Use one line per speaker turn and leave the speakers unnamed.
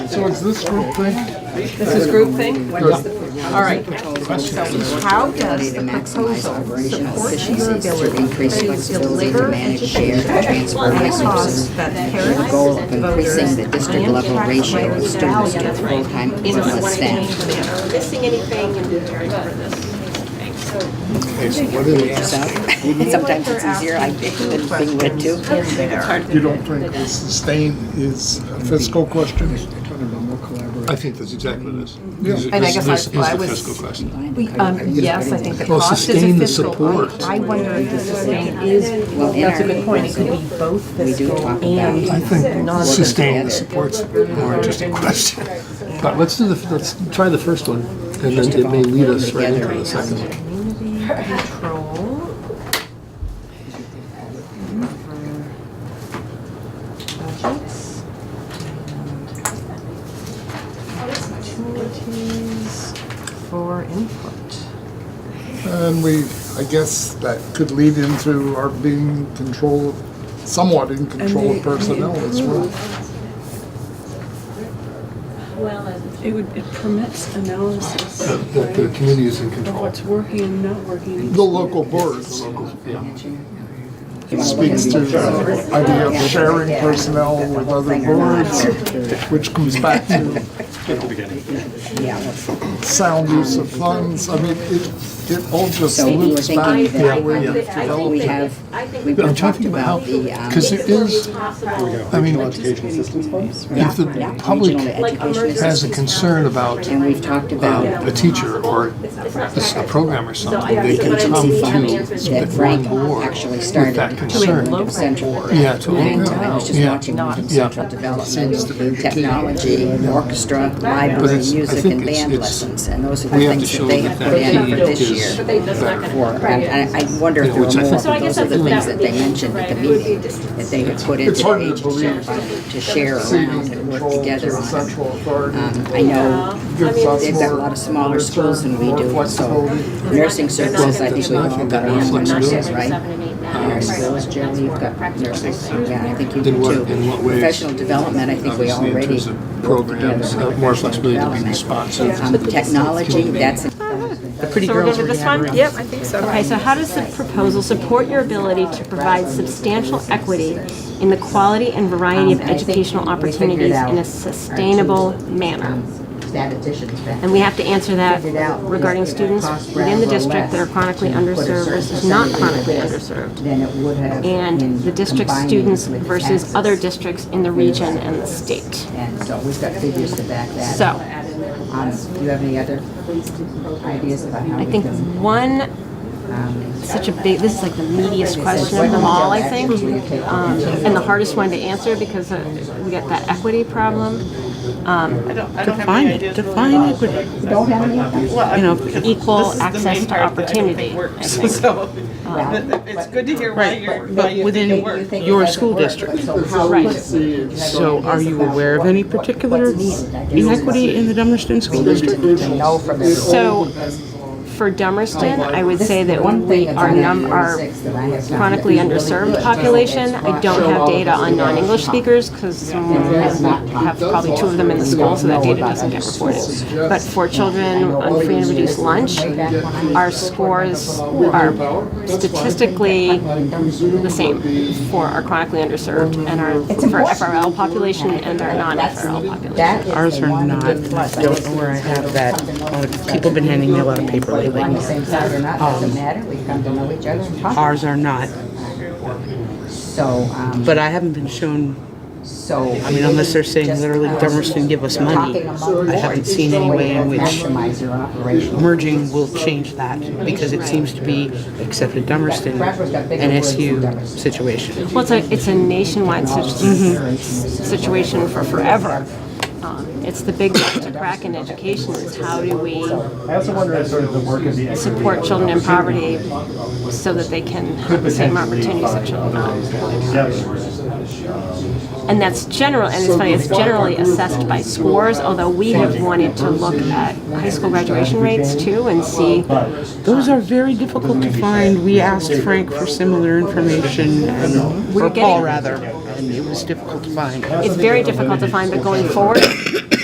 So is this group thing?
This is group thing? What is the, all right. So how does the proposal support the ability to deliver and share transfer resources that parents,
goal of increasing the district level ratio of students to
Right.
full-time
In a
equivalent staff.
Missing anything in return for this?
And sometimes it's easier, I think, than being read to.
You don't think the sustain is a fiscal question?
I think that's exactly what it is.
And I guess I-
This is
I
the
was-
fiscal question.
we, um, yes, I think the
Well,
cost is
sustain the
a fiscal. I-
support.
I wonder if the sustain is,
Well, in
that's a good
our,
point, it could be both
we do
fiscal
talk
and
about
non.
Sustain the support's more interesting question. But let's do the, let's try the first one, and then it may lead us right into the second one.
Community control. Budgets. Opportunities for input.
And we, I guess that could lead into our being control, somewhat in control of personnel
Mm.
as well.
It would, it permits analysis
That- That the community is in
of
control.
what's working and not working.
The local boards
Yeah.
speaks to the idea of sharing personnel with other boards, which comes back to
yeah, let's-
sound use of funds. I mean, it, it all just
So we were
loops back
thinking
to
that-
where
I
we've
think that-
we
developed.
have,
I think
we've
But I'm
talked
talking about
about the,
how,
um,
because it is,
possible,
I mean,
Education assistance funds?
if the
yeah,
public
regional education
emergency-
has a
assistance.
concern about
And we've talked about
um, a teacher or
it's not
a a program or something,
I-
they
so
can
what I
come
see- I mean,
to
it's-
the
that
one
Frank
board
actually
with
started
that concern.
local
Central.
board.
Yeah, to
I
local.
I was just
Yeah.
watching
Not-
Central Development, technology, orchestra, library,
it's- I
music,
think
and
it's-
band
it's-
lessons, and those are the
We have to
things that
show
they
that
have put in
that
for
need
this
is
year.
better.
For, and I I wonder if
Yeah,
there
which I
were more,
think- So I
but those
guess
are the
that's-
things
that
that
would
they
be-
mentioned at the
right, it would be
meeting,
dis-
that they had put into
It's
their
hard to
agency
believe
to share around
ceding
and work
control to
together
a
on.
central authority.
Um, I know
gives us
they've got a
more
lot of smaller
return,
schools than we
more
do, so-
flexibility.
nursing services, I think
There's
we've all
nothing
got
that
on for
reflects
nurses,
doing.
right? Nurse skills, Joe, you've got nursing, yeah, I think you do
In what-
too.
in what ways?
Professional development, I think we
Obviously, in
already um,
terms of
work together.
programs,
on
uh, more
professional
flexibility to be
development.
responsive.
Um, Technology, that's,
So we're going to this one? Yep, I think so.
Okay, so how does the proposal support your ability to provide substantial equity in the quality and variety of
Um, I think
educational
we figured
opportunities
out
in
our
a sustainable
two.
manner?
that addition's back.
And we have to answer that
Figured out
regarding
is that it
students
costs
within the
rather
district that are
less
chronically
to put a
underserved
certain
versus not
percentage
chronically
in this
underserved.
Than it would have.
And
in
the district
Mm. combining
students
with
versus
taxes.
other districts in the region and the state.
And so we've got figures to back that.
So,
up. Um, do you have any other ideas about how
I
we
think
can? um,
one such a big, this is like the meatiest question of them all, I think, um, and the hardest one to answer because uh, we got that equity problem. Um,
Define it, define equity.
Don't have any?
You know,
equal access to opportunity. I think.
So,
It's
good to hear
right, but- but within your school district.
Right.
So are you aware of any particular inequity in the Dummerston School District?
No from every-
So, for Dummerston, I would say that
One
we,
thing that's
our
on
num,
that
our
46 that I have found
chronically
that is really
underserved
good
population, I don't have data on non-English speakers, because
that's not
we have probably two of them in the school, so that data doesn't get reported. But for children on free and reduced lunch, our scores are statistically the same for our chronically underserved and our, for our FRL population and our non-FRL population.
That is
Ours
the
are
one
not.
big plus.
I don't know where I have that. Uh, People have been handing me a lot of paper
Whether we're on the
lately.
same side or not, doesn't matter, we come to know each other and talk.
Ours are not,
So, um,
but I haven't been shown,
so. uh,
I mean, unless they're saying literally Dummerston give us money, I haven't seen any way in which
Maximize your operation.
merging will change that because it seems to be, except at Dummerston, an SU situation.
Well, it's a, it's a nationwide
Mm-hmm.
situ-
Mm-hmm.
situation for forever. Um, It's the big nut to crack in education is how do we
I also wonder if sort of the work of the equity
support children in poverty so that they can have the same opportunities that children have.
Um,
And that's general, and it's funny, it's generally assessed by scores, although we have wanted to look at high school graduation rates too and see
Those are very difficult to find. We asked Frank for similar information, and, or
getting-
Paul rather, and it was difficult to find.
it's very difficult to find, but going forward,